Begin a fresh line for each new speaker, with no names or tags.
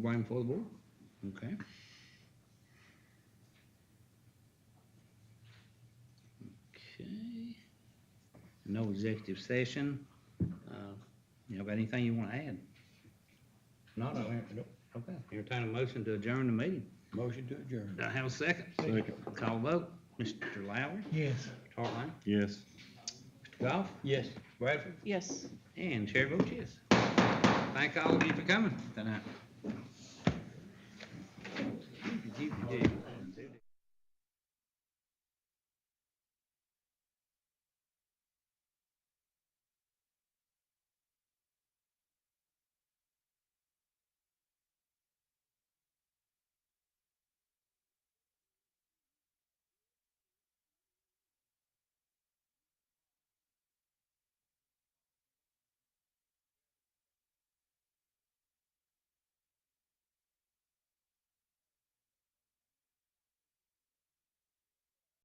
going for the board? Okay. Okay. No executive session. Uh, You have anything you want to add? Not, I
Nope.
okay. Entertain a motion to adjourn the meeting.
Motion to adjourn.
Do I have a second?
Second.
Call vote. Mr. Lowry,
Yes.
Hartline,
Yes.
Mr. Goff,
Yes.
Bradford,
Yes.
and Chair votes yes. Thank all of you for coming tonight.